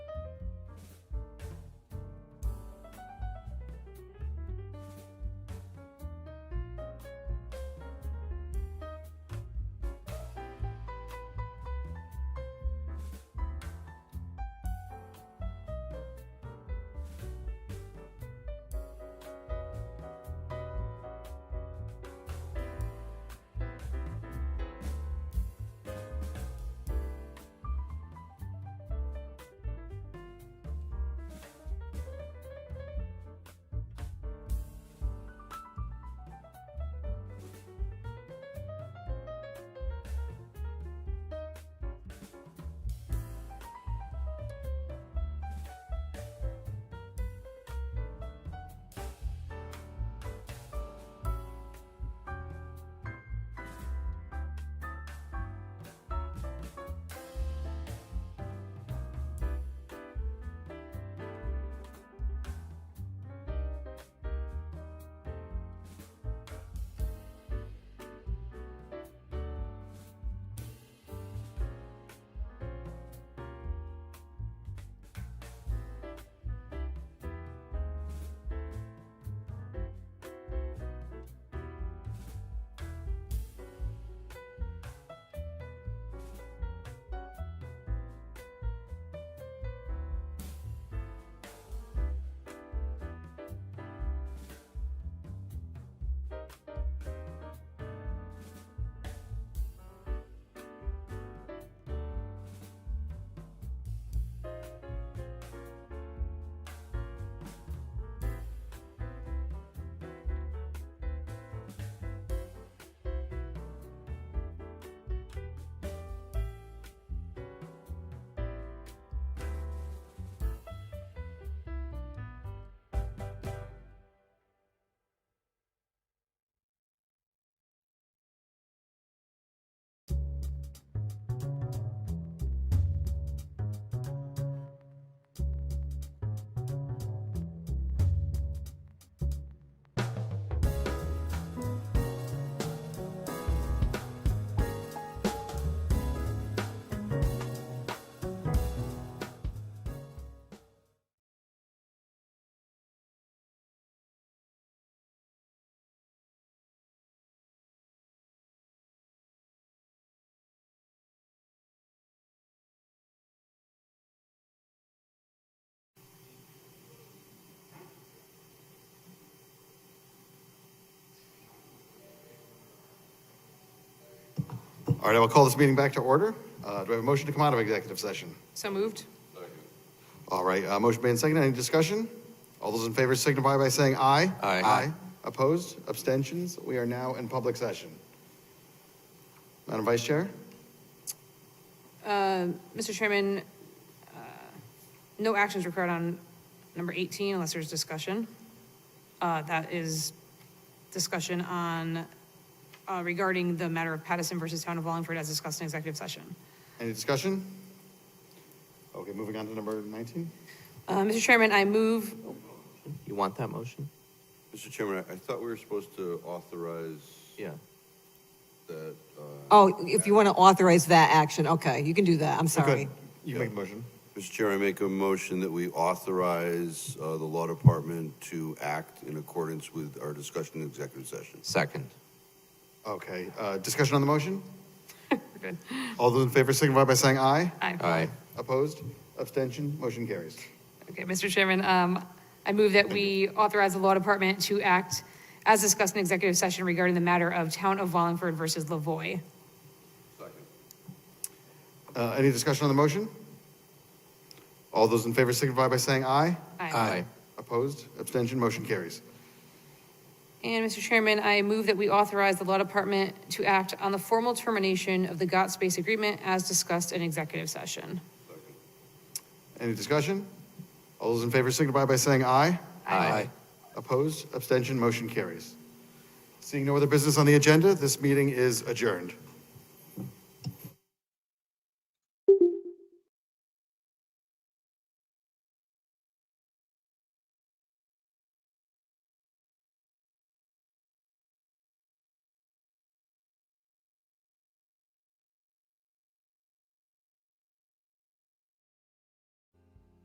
All right, I will call this meeting back to order. Uh, Do I have a motion to come out of executive session? So moved. All right, uh, motion made and seconded. Any discussion? All those in favor signify by saying aye. Aye. Aye. Opposed? Abstentions? We are now in public session. Madam Vice Chair? Uh, Mr. Chairman, uh, no actions required on number 18 unless there's discussion. Uh, That is discussion on, uh, regarding the matter of Pattison versus Town of Wallingford as discussed in executive session. Any discussion? Okay, moving on to number 19. Uh, Mr. Chairman, I move, You want that motion? Mr. Chairman, I I thought we were supposed to authorize Yeah. that, uh, Oh, if you want to authorize that action, okay, you can do that, I'm You could- sorry. You make a motion. Mr. Chair, I make a motion that we authorize uh, the Law Department to act in accordance with our discussion in executive session. Second. Okay, uh, discussion on the motion? good. All those in favor signify by saying aye. Aye. Opposed? Abstention? Motion carries. Okay, Mr. Chairman, um, I move that we authorize the law department to act as discussed in executive session regarding the matter of Town of Wallingford versus Lavoy. Uh, Any discussion on the motion? All those in favor signify by saying aye. Opposed? Abstention? Motion carries. And Mr. Chairman, I move that we authorize the law department to act on the formal termination of the GOT space agreement as discussed in executive session. Any discussion? All those in favor signify by saying aye. Aye. Opposed? Abstention? Motion carries. Seeing no other business on the agenda, this meeting is adjourned.